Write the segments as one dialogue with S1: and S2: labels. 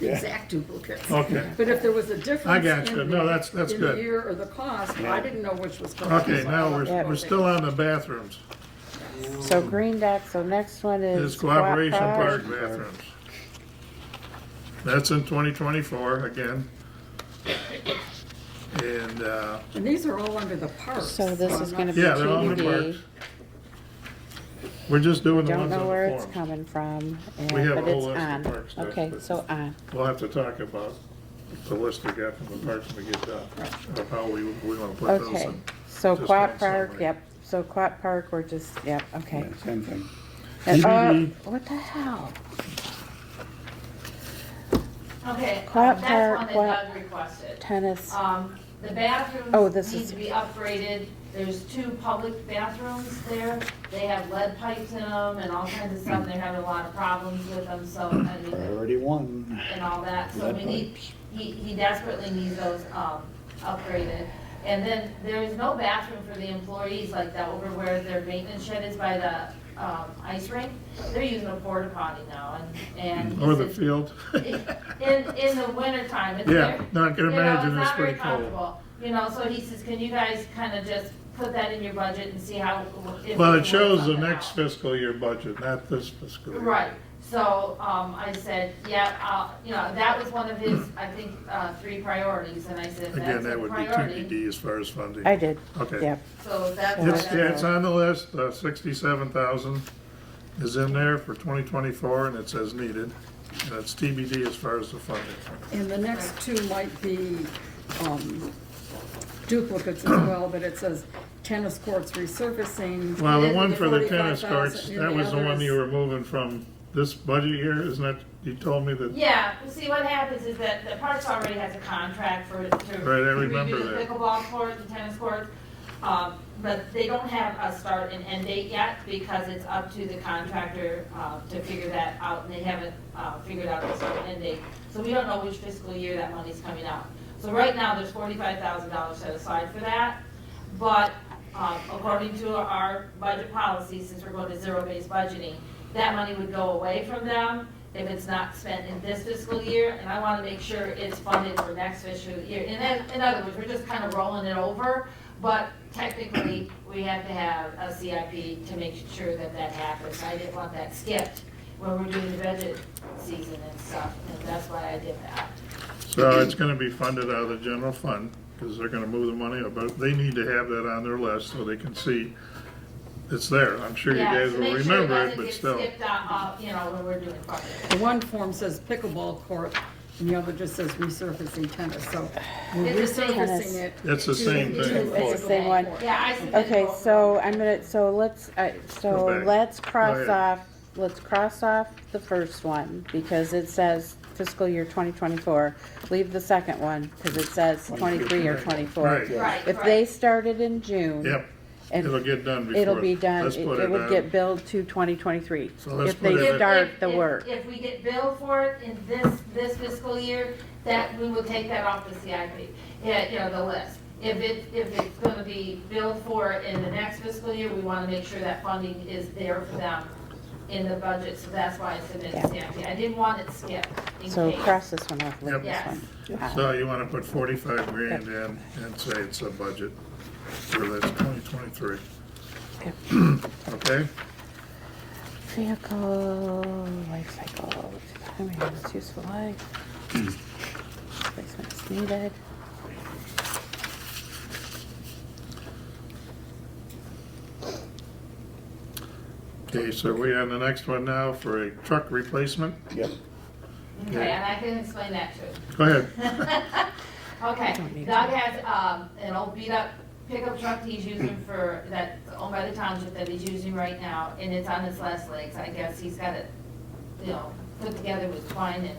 S1: exact duplicates.
S2: Okay.
S1: But if there was a difference.
S2: Oh. I got you.
S1: in
S2: No,
S1: the-
S2: that's- that's
S1: In
S2: good.
S1: the year or the cost, I didn't know which was correct.
S2: Okay,
S1: so I
S2: now
S1: don't
S2: we're,
S1: know.
S2: we're still on the bathrooms.
S3: So Green Dock, so next one
S2: It's
S3: is.
S2: Cooperation
S3: Guap
S2: Park bathrooms. That's in twenty twenty-four again. And, uh,
S1: And these are all under the parks.
S3: So this is
S1: I'm
S3: gonna
S1: not-
S3: be
S2: yeah, they're all in the
S3: TBD.
S2: parks. We're just doing the
S3: E Don't
S2: ones
S3: know
S2: on
S3: where it's
S2: the form.
S3: coming from, and-
S2: We have
S3: but
S2: a
S3: it's
S2: whole list of
S3: on.
S2: parks that-
S3: Okay, so on.
S2: We'll have to talk about the list we got from the parks when we get done, of how we, we wanna put those
S3: Okay,
S2: in.
S3: so
S2: Just
S3: Quat
S2: one
S3: Park,
S2: summary.
S3: yep, so Quat Park, we're just, yep, okay.
S4: Yeah, Same thing.
S3: And, uh,
S4: TBD.
S3: what the hell?
S5: Okay, um,
S3: Clap,
S5: that's one
S3: clap, clap.
S5: that Doug requested.
S3: Tennis,
S5: Um, the
S3: Oh,
S5: bathrooms
S3: this
S5: need
S3: is-
S5: to be upgraded. There's two public bathrooms there. They have lead pipes in them and all kinds of stuff. They're having a lot of problems with them, so, I mean,
S4: Priority one.
S5: and all that. So
S4: Lead
S5: we need,
S4: pipes.
S5: he, he desperately needs those, um, upgraded. And then there is no bathroom for the employees like that over where their maintenance shed is by the, um, ice rink. They're using a porta potty now and, and. he
S2: Or the
S5: said-
S2: field.
S5: in, in the wintertime. it's
S2: Yeah,
S5: very-
S2: no, I can
S5: you know,
S2: imagine it's
S5: not very
S2: pretty cold.
S5: comfortable, You know, so he says, can you guys kind of just put that in your budget and see how? if we
S2: Well,
S5: can
S2: it
S5: work
S2: shows the
S5: something
S2: next
S5: out?"
S2: fiscal year budget, not this fiscal year.
S5: Right, so, um, I said, yeah, I'll, you know, that was one of his, I think, uh, three priorities, and I said,
S2: Again,
S5: that's a
S2: that would be
S5: priority.
S2: TBD as far as funding.
S3: I uh, did,
S2: Okay.
S3: yep.
S5: So that's. why
S2: It's,
S5: that's-
S2: yeah, it's on the list, uh, sixty-seven thousand is in there for twenty twenty-four, and it says needed. That's TBD as far as the funding.
S1: And the next two might be um, duplicates as well, but it says tennis courts resurfacing.
S2: Well, the
S1: and
S2: one for the tennis
S1: 45,000,
S2: courts,
S1: and
S2: that was the one
S1: others-
S2: you were moving from this budget year, isn't that, you told me that,
S5: Yeah, well, see, what happens is that the parks already has a contract for, to.
S2: Right, I remember
S5: redo
S2: that.
S5: The pickleball court, the tennis court, um, but they don't have a start and end date yet because it's up to the contractor, uh, to figure that out, and they haven't, uh, figured out the start and end date. So we don't know which fiscal year that money's coming out. So right now, there's forty-five thousand dollars set aside for that, but, um, according to our budget policy, since we're going to zero-based budgeting, that money would go away from them if it's not spent in this fiscal year, and I want to make sure it's funded for next fiscal year. And then, in other words, we're just kind of rolling it over, but technically, we have to have a CIP to make sure that that happens. I didn't want that skipped when we're doing the budget season and stuff, and that's why I did that.
S2: so it's gonna be funded out of the general fund, because they're gonna move the money, but they need to have that on their list so they can see it's there. I'm sure you
S5: Yeah,
S2: guys
S5: so
S2: will
S5: make sure
S2: remember it, but
S5: doesn't
S2: still.
S5: get skipped out, uh, you know, when we're doing budget.
S1: The one form says pickleball court, and the other just says resurfacing tennis, so we're
S5: It's the same.
S1: resurfacing it.
S2: It's the
S1: to-
S2: same
S1: to
S2: thing.
S1: pickleball
S3: It's the same one.
S1: court.
S5: Yeah, I submitted
S3: Okay,
S5: both of
S3: so
S5: them.
S3: I'm gonna, so let's, uh, so
S2: back.
S3: let's cross
S2: ahead.
S3: off, let's cross off the first one, because it says fiscal year twenty twenty-four. Leave the second one, because it says twenty-three or twenty-four.
S2: Right.
S5: Right,
S3: If
S5: right.
S3: they started in June.
S2: Yep, it'll
S3: And
S2: get done before.
S3: it'll be done,
S2: Let's
S3: it
S2: put
S3: it would
S2: on.
S3: get billed to twenty twenty-three,
S2: So let's
S3: if
S2: put it
S3: they
S2: in.
S3: start
S5: If-
S3: the
S5: if-
S3: work.
S5: If we get billed for it in this, this fiscal year, that, we will take that off the CIP, yeah, you know, the list. If it, if it's gonna be billed for in the next fiscal year, we wanna make sure that funding is there for them in the budget, so that's why I submitted CIP. I didn't want it skipped in
S3: So
S5: case.
S3: cross this one off, leave this
S5: Yes.
S3: one. out.
S2: So you wanna put forty-five grand in and say it's a budget for this twenty twenty-three. Okay,
S3: Vehicle life cycle, time and its useful life. Replacement is needed.
S2: okay, so we on the next one now for a truck replacement?
S4: Yep.
S5: Okay, and I can explain that too.
S2: Go ahead.
S5: Okay, Doug has, um, an old beat up pickup truck he's using for, that's owned by the township that he's using right now, and it's on his last legs, I guess he's got it, you know, put together with twine and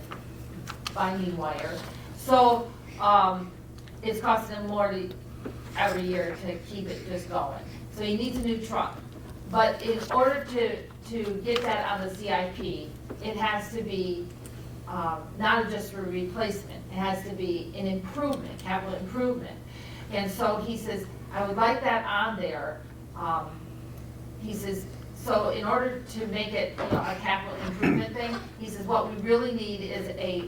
S5: binding wire. So, um, it's costing him more to, every year to keep it just going, so he needs a new truck. But in order to, to get that on the CIP, it has to be um, not just for replacement, it has to be an improvement, capital improvement. And so he says, I would like that on there. Um, He says, so in order to make it, you know, a capital improvement thing, he says, what we really need is a